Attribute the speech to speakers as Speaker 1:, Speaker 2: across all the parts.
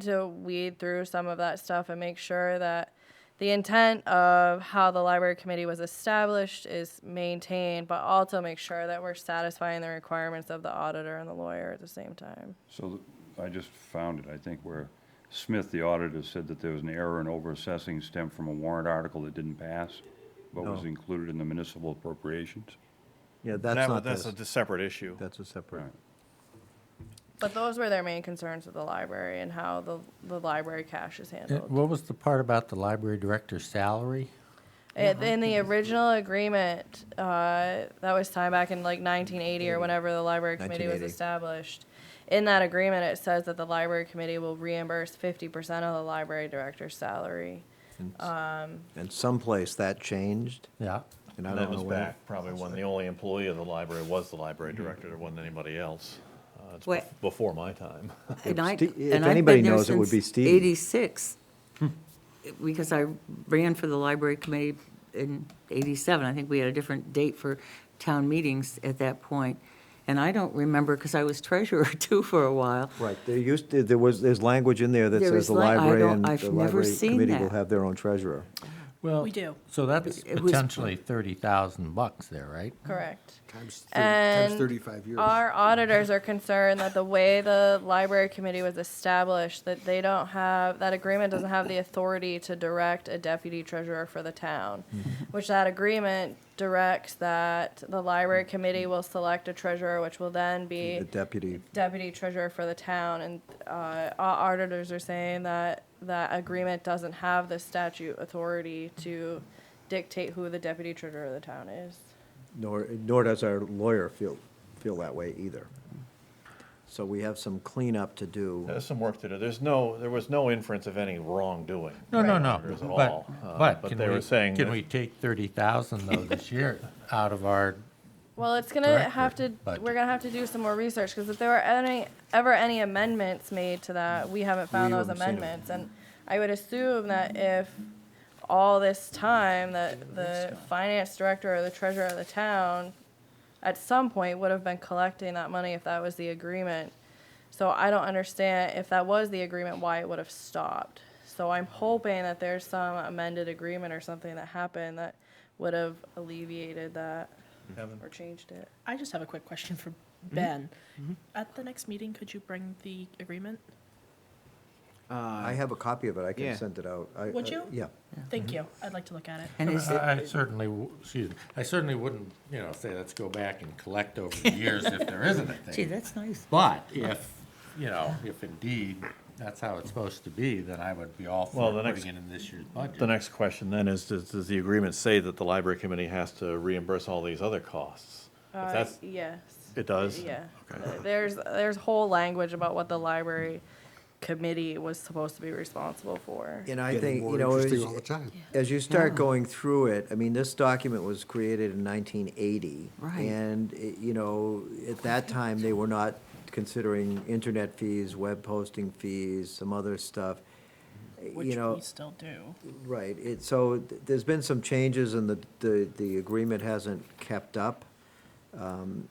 Speaker 1: to weed through some of that stuff and make sure that the intent of how the library committee was established is maintained, but also make sure that we're satisfying the requirements of the auditor and the lawyer at the same time.
Speaker 2: So th- I just found it, I think, where Smith, the auditor, said that there was an error in overassessing stemmed from a warrant article that didn't pass, but was
Speaker 3: No.
Speaker 2: included in the municipal appropriations.
Speaker 3: Yeah,
Speaker 4: That-
Speaker 3: that's not
Speaker 4: That's
Speaker 3: this.
Speaker 4: a separate issue.
Speaker 3: That's a separate.
Speaker 2: Right.
Speaker 1: But those were their main concerns with the library and how the, the library cash is
Speaker 5: And
Speaker 1: handled.
Speaker 5: What was the part about the library director's salary?
Speaker 1: It, in the original agreement, uh, that was time back in like 1980 or whenever the library committee was
Speaker 3: 1980.
Speaker 1: established. In that agreement, it says that the library committee will reimburse 50% of the library director's salary.
Speaker 6: Um.
Speaker 3: And someplace that changed, and
Speaker 5: Yeah.
Speaker 3: I
Speaker 4: And that
Speaker 3: don't know
Speaker 4: was
Speaker 3: where. Mm-hmm.
Speaker 4: back probably when the only employee of the library was the library director. There wasn't anybody else. Uh, It's
Speaker 6: Wait.
Speaker 4: bef- before my time.
Speaker 6: And I-
Speaker 3: Ste- if
Speaker 6: and I've been
Speaker 3: anybody
Speaker 6: there
Speaker 3: knows, it would
Speaker 6: since
Speaker 3: be Hmm. Stevie.
Speaker 6: Eighty-six, because I ran for the library committee in eighty-seven. I think we had a different date for town meetings at that point. And I don't remember, because I was treasurer too for a while.
Speaker 3: Right, there used, to- there was, there's language in there that
Speaker 6: There
Speaker 3: says
Speaker 6: is
Speaker 3: the
Speaker 6: li- I
Speaker 3: library
Speaker 6: don't-
Speaker 3: and
Speaker 6: I've
Speaker 3: the
Speaker 6: never
Speaker 3: library
Speaker 6: seen
Speaker 3: committee will
Speaker 6: that.
Speaker 3: have their own treasurer.
Speaker 5: Well,
Speaker 7: We do.
Speaker 5: So that's
Speaker 6: It was-
Speaker 5: potentially thirty thousand bucks there, right?
Speaker 1: Correct.
Speaker 8: Times thirty-
Speaker 1: And
Speaker 8: Times thirty-five years.
Speaker 1: Our auditors are concerned that the way the library committee was established, that they don't have, that agreement doesn't have the authority to direct a deputy treasurer for the town. Which that agreement directs that the library committee will select a treasurer, which will then be
Speaker 3: The deputy,
Speaker 1: deputy treasurer for the town. And, uh, our auditors are saying that that agreement doesn't have the statute authority to dictate who the deputy treasurer of the town is.
Speaker 3: nor, nor does our lawyer feel, feel that way either. So we have some cleanup to do.
Speaker 4: There's some work to do. There's no, there was no inference of any wrongdoing.
Speaker 5: No, no,
Speaker 4: by
Speaker 5: no,
Speaker 4: auditors at all. Uh,
Speaker 5: but, but
Speaker 4: But
Speaker 5: can
Speaker 4: they were
Speaker 5: we,
Speaker 4: saying.
Speaker 5: can
Speaker 4: that-
Speaker 5: we take thirty thousand though this year out of our,
Speaker 1: Well, it's gonna
Speaker 5: Director
Speaker 1: have to.
Speaker 5: budget.
Speaker 1: We're gonna have to do some more research because if there were any ever any amendments made to that, we haven't found
Speaker 3: We
Speaker 1: those
Speaker 3: haven't seen 'em.
Speaker 1: amendments, and I would assume that if all this time that
Speaker 3: uh,
Speaker 1: the finance director or the treasurer of the town, at some point, would have been collecting that money if that was the agreement. So I don't understand if that was the agreement, why it would have stopped. So I'm hoping that there's some amended agreement or something that happened that would have alleviated that or changed it.
Speaker 7: I just have a quick question for Ben. At the next meeting, could you bring the agreement?
Speaker 3: I have a copy of it, I
Speaker 9: Yeah.
Speaker 3: can send it out. I-
Speaker 7: Would
Speaker 3: I-
Speaker 7: you?
Speaker 3: Yeah.
Speaker 7: Thank you. I'd like to look at it.
Speaker 6: And is, it-
Speaker 5: I certainly, w- excuse me, I certainly wouldn't, you know, say let's go back and collect over the years if there isn't a thing.
Speaker 6: gee, that's nice.
Speaker 5: But if, you know, if indeed that's how it's supposed to be, then I would be all for
Speaker 4: Well, the
Speaker 5: putting
Speaker 4: next-
Speaker 5: it in this year's budget.
Speaker 4: The next question then is, does, does the agreement say that the library committee has to reimburse all these other costs? If
Speaker 1: Uh,
Speaker 4: that's,
Speaker 1: yes.
Speaker 4: it does?
Speaker 1: Yeah.
Speaker 4: Okay.
Speaker 1: Uh, There's, there's whole language about what the library committee was supposed to be responsible for.
Speaker 3: And I
Speaker 8: Getting
Speaker 3: think,
Speaker 8: more
Speaker 3: you know,
Speaker 8: interesting
Speaker 3: as-
Speaker 8: all the time.
Speaker 3: as you start going through it, I mean, this document was created in 1980.
Speaker 6: Right.
Speaker 3: And, eh, you know, at that time, they were not considering internet fees, web posting fees, some other stuff. Eh, You
Speaker 7: Which
Speaker 3: know,
Speaker 7: we still do.
Speaker 3: right, it, so th- there's been some changes and the, the, the agreement hasn't kept up, um,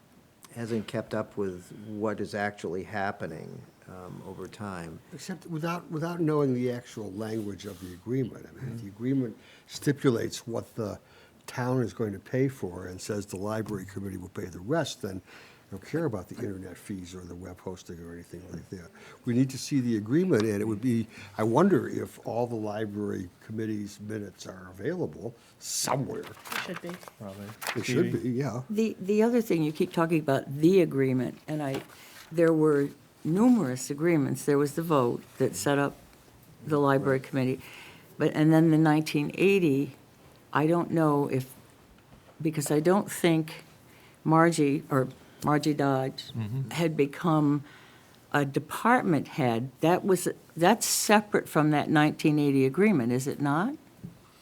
Speaker 3: hasn't kept up with what is actually happening um, over time.
Speaker 8: Except without, without knowing the actual language of the agreement. I mean, if the agreement stipulates what the town is going to pay for and says the library committee will pay the rest, then I don't care about the internet fees or the web hosting or anything like that. We need to see the agreement, and it would be, I wonder if all the library committee's minutes are available somewhere.
Speaker 7: It should be.
Speaker 4: Probably.
Speaker 8: They should
Speaker 4: Stevie?
Speaker 8: be, yeah.
Speaker 6: The, the other thing, you keep talking about the agreement, and I, there were numerous agreements. There was the vote that set up the library committee, but, and then the 1980, I don't know if, because I don't think Margie, or Margie Dodge, had become a department head. That was, that's separate from that 1980 agreement, is it not?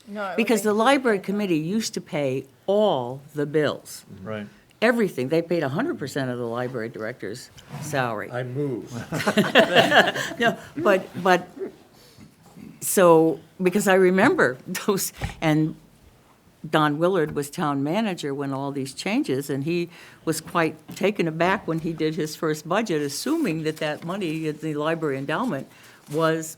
Speaker 1: No, I would
Speaker 6: Because
Speaker 1: think-
Speaker 6: the library committee used to pay all the bills
Speaker 4: Right.
Speaker 6: everything. They paid hundred percent of the library director's salary.
Speaker 5: I move.
Speaker 6: No, but, but, so, because I remember those, and Don Willard was town manager when all these changes, and he was quite taken aback when he did his first budget, assuming that that money, the library endowment, was